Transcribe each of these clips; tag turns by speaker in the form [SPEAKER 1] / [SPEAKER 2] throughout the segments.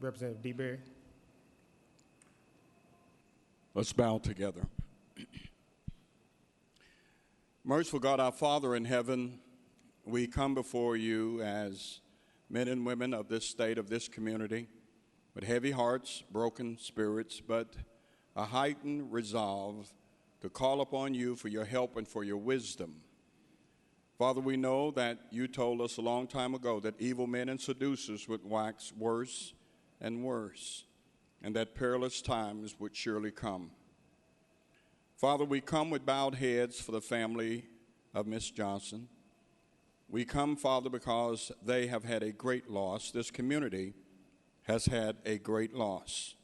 [SPEAKER 1] Representative DeBerry.
[SPEAKER 2] Let's bow together. Merciful God, our Father in heaven, we come before you as men and women of this state, of this community, with heavy hearts, broken spirits, but a heightened resolve to call upon you for your help and for your wisdom. Father, we know that you told us a long time ago that evil men and seducers would wax worse and worse, and that perilous times would surely come. Father, we come with bowed heads for the family of Miss Johnson. We come, Father, because they have had a great loss. This community has had a great loss.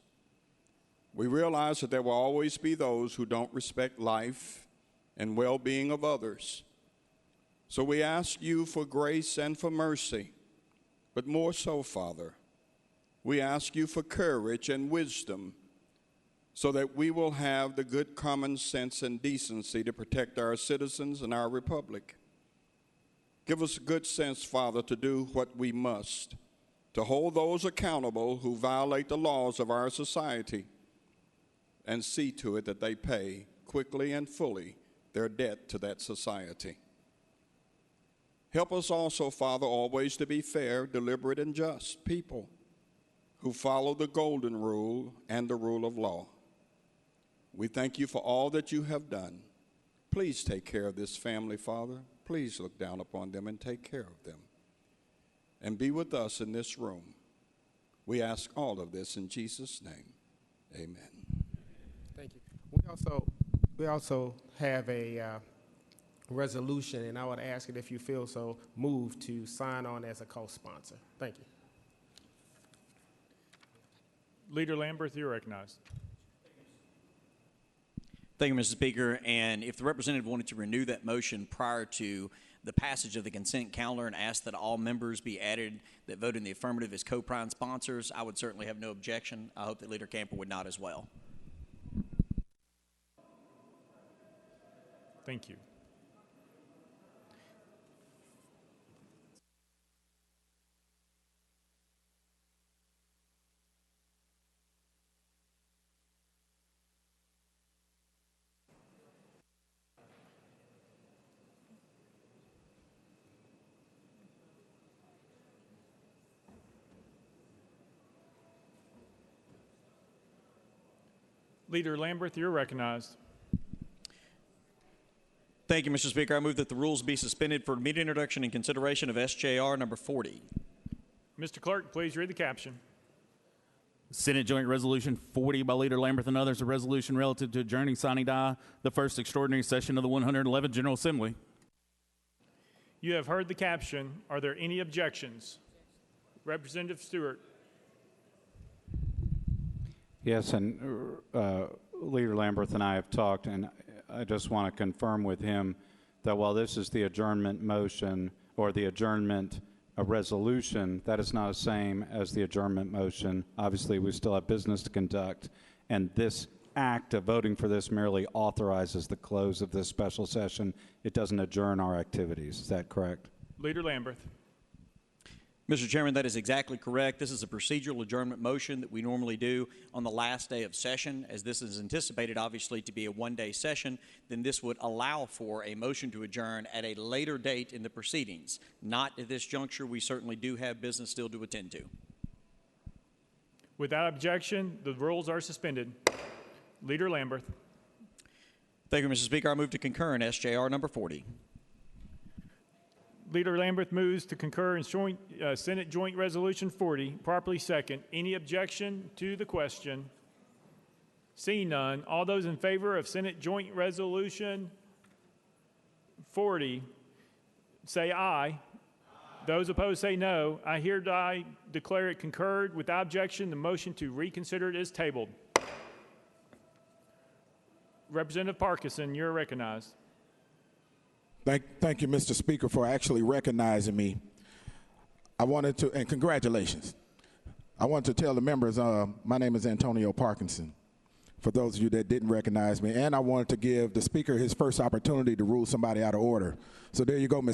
[SPEAKER 2] We realize that there will always be those who don't respect life and well being of others. So we ask you for grace and for mercy, but more so, Father, we ask you for courage and wisdom so that we will have the good common sense and decency to protect our citizens and our republic. Give us good sense, Father, to do what we must, to hold those accountable who violate the laws of our society, and see to it that they pay quickly and fully their debt to that society. Help us also, Father, always to be fair, deliberate, and just people who follow the golden rule and the rule of law. We thank you for all that you have done. Please take care of this family, Father. Please look down upon them and take care of them. And be with us in this room. We ask all of this in Jesus' name. Amen.
[SPEAKER 1] Thank you. We also, we also have a uh, resolution, and I would ask it if you feel so moved to sign on as a co-sponsor. Thank you.
[SPEAKER 3] Leader Lambert, you're recognized.
[SPEAKER 4] Thank you, Mr. Speaker. And if the representative wanted to renew that motion prior to the passage of the consent calendar and ask that all members be added that vote in the affirmative as co-prime sponsors, I would certainly have no objection. I hope that Leader Camper would not as well.
[SPEAKER 3] Thank you. Leader Lambert, you're recognized.
[SPEAKER 4] Thank you, Mr. Speaker. I move that the rules be suspended for immediate introduction and consideration of SJR number 40.
[SPEAKER 3] Mr. Clerk, please read the caption.
[SPEAKER 5] Senate Joint Resolution 40 by Leader Lambert and others, a resolution relative to adjourning sine die the first extraordinary session of the 111th General Assembly.
[SPEAKER 3] You have heard the caption. Are there any objections? Representative Stewart,
[SPEAKER 6] Yes, and uh, Leader Lamberth and I have talked, and I just want to confirm with him that while this is the adjournment motion or the adjournment uh, resolution, that is not the same as the adjournment motion. Obviously, we still have business to conduct, and this act of voting for this merely authorizes the close of this special session. It doesn't adjourn our activities. Is that correct?
[SPEAKER 3] Leader Lambert.
[SPEAKER 4] Mr. Chairman, that is exactly correct. This is a procedural adjournment motion that we normally do on the last day of session. As this is anticipated, obviously, to be a one day session, then this would allow for a motion to adjourn at a later date in the proceedings. Not at this juncture. We certainly do have business still to attend to.
[SPEAKER 3] Without objection, the rules are suspended. Leader Lambert,
[SPEAKER 4] Thank you, Mr. Speaker. I move to concur in SJR number 40.
[SPEAKER 3] Leader Lambert moves to concur in joint, uh, Senate Joint Resolution 40, properly second. Any objection to the question? Seeing none, all those in favor of Senate Joint Resolution 40, say aye. Those opposed say no. I hereby declare it concurred. Without objection, the motion to reconsider it is tabled. Representative Parkinson, you're recognized.
[SPEAKER 7] Thank, thank you, Mr. Speaker, for actually recognizing me. I wanted to, and congratulations. I wanted to tell the members, uh, my name is Antonio Parkinson, for those of you that didn't recognize me. And I wanted to give the Speaker his first opportunity to rule somebody out of order. So there you go, Mr.